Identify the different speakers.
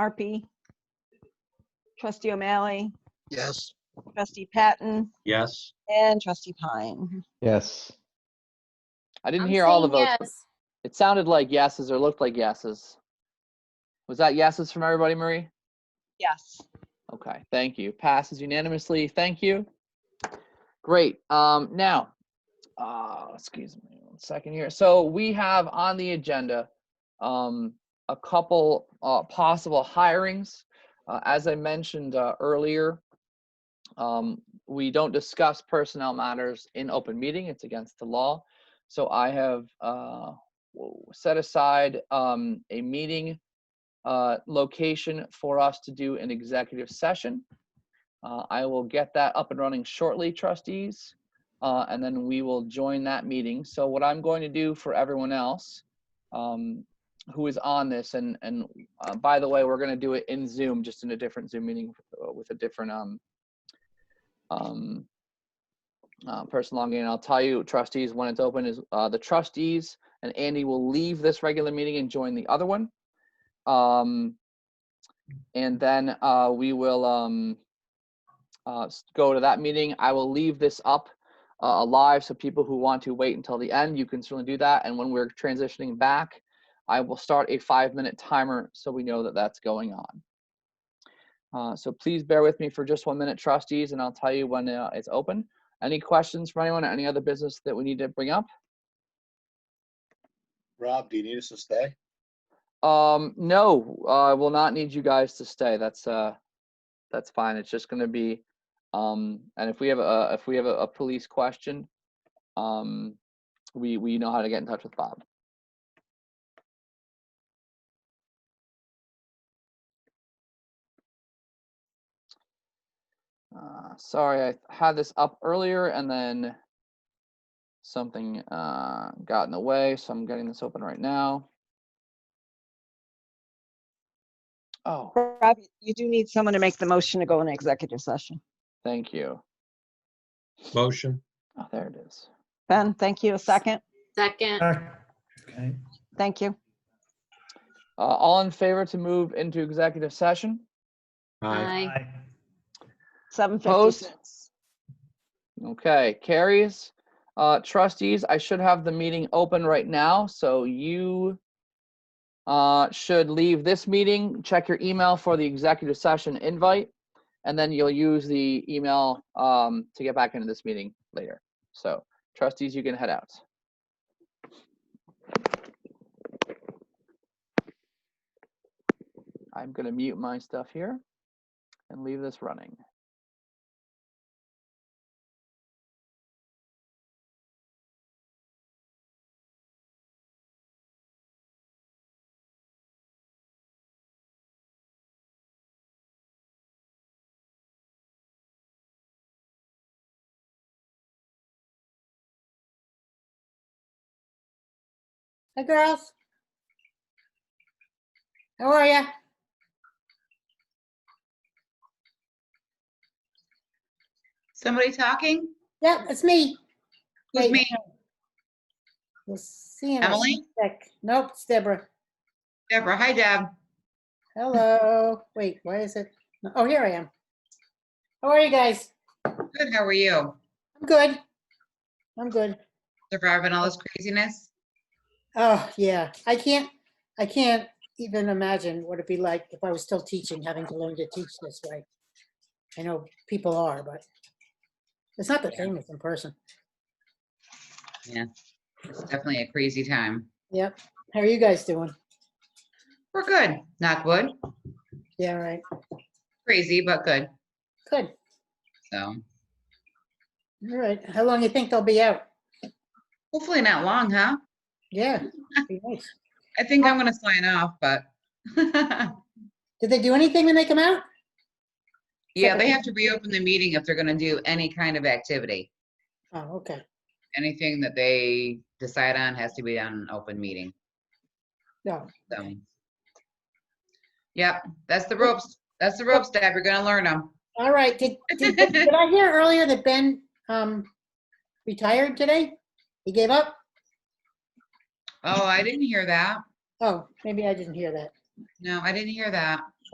Speaker 1: Marpy. Trustee O'Malley,
Speaker 2: Yes.
Speaker 1: trustee Patton,
Speaker 2: Yes.
Speaker 1: and trustee Pine.
Speaker 3: Yes.
Speaker 4: I didn't
Speaker 5: I'm
Speaker 4: hear all the
Speaker 5: saying
Speaker 4: votes. but
Speaker 5: yes.
Speaker 4: It sounded like yeses or looked like yeses. Was that yeses from everybody, Marie?
Speaker 1: Yes.
Speaker 4: Okay, thank you. Passes unanimously. Thank you. Great. Um, now, uh, excuse me one second here. So we have on the agenda um, a couple uh, possible hirings. Uh, as I mentioned uh, earlier, um, we don't discuss personnel matters in open meeting. It's against the law. So I have uh, w- set aside um, a meeting uh, location for us to do an executive session. Uh, I will get that up and running shortly, trustees, uh, and then we will join that meeting. So what I'm going to do for everyone else um, who is on this, and and uh, by the way, we're going to do it in Zoom, just in a different Zoom meeting uh, with a different um, um, uh, person logging in. I'll tell you, trustees, when it's open is uh, the trustees and Andy will leave this regular meeting and join the other one. Um, and then uh, we will um, uh, s- go to that meeting. I will leave this up uh, live so people who want to wait until the end, you can certainly do that. And when we're transitioning back, I will start a five minute timer so we know that that's going on. Uh, so please bear with me for just one minute, trustees, and I'll tell you when uh, it's open. Any questions from anyone? Any other business that we need to bring up?
Speaker 2: Rob, do you need us to stay?
Speaker 4: Um, no, I will not need you guys to stay. That's uh, that's fine. It's just gonna be, um, and if we have a if we have a, a police question, um, we we know how to get in touch with Bob. Uh, sorry, I had this up earlier and then something uh got in the way, so I'm getting this open right now. Oh.
Speaker 1: Rob, you do need someone to make the motion to go in executive session.
Speaker 4: Thank you.
Speaker 2: Motion?
Speaker 4: Oh, there it is.
Speaker 1: Ben, thank you. A second.
Speaker 5: Second,
Speaker 3: Okay.
Speaker 1: Thank you.
Speaker 4: Uh, all in favor to move into executive session?
Speaker 5: aye.
Speaker 1: Seven
Speaker 4: Opposed?
Speaker 1: fifty-six.
Speaker 4: Okay, carries. Uh, trustees, I should have the meeting open right now, so you uh, should leave this meeting, check your email for the executive session invite, and then you'll use the email um, to get back into this meeting later. So trustees, you can head out. I'm gonna mute my stuff here and leave this running.
Speaker 6: Hey, girls. How are ya?
Speaker 7: Somebody talking?
Speaker 6: Yep, it's me.
Speaker 7: Who's
Speaker 6: Wait,
Speaker 7: me?
Speaker 6: You'll see in a
Speaker 7: Emily?
Speaker 6: sec. Nope, it's Deborah.
Speaker 7: Deborah. Hi, Deb.
Speaker 6: Hello. Wait, why is it? Oh, here I am. How are you guys?
Speaker 7: Good. How are you?
Speaker 6: I'm good. I'm good.
Speaker 7: Surviving all this craziness?
Speaker 6: Oh, yeah. I can't, I can't even imagine what it'd be like if I was still teaching, having to learn to teach this way. I know people are, but it's not the same as in person.
Speaker 7: It's definitely a crazy time.
Speaker 6: Yep. How are you guys doing?
Speaker 7: We're good. Not good.
Speaker 6: Yeah, all right.
Speaker 7: Crazy, but good.
Speaker 6: Good.
Speaker 7: So
Speaker 6: All right, how long you think they'll be out?
Speaker 7: hopefully not long, huh?
Speaker 6: Yeah. be nice.
Speaker 7: I think I'm gonna sign off, but
Speaker 6: Did they do anything when they come out?
Speaker 7: yeah, they have to reopen the meeting if they're gonna do any kind of activity.
Speaker 6: Oh, okay.
Speaker 7: Anything that they decide on has to be on an open meeting.
Speaker 6: No,
Speaker 7: So. Yep, that's the ropes. That's the ropes, Deb. You're gonna learn them.
Speaker 6: all right, did, did, did I hear earlier that Ben, um, retired today? He gave up?
Speaker 7: Oh, I didn't hear that.
Speaker 6: Oh, maybe I didn't hear that.
Speaker 7: No, I didn't hear that.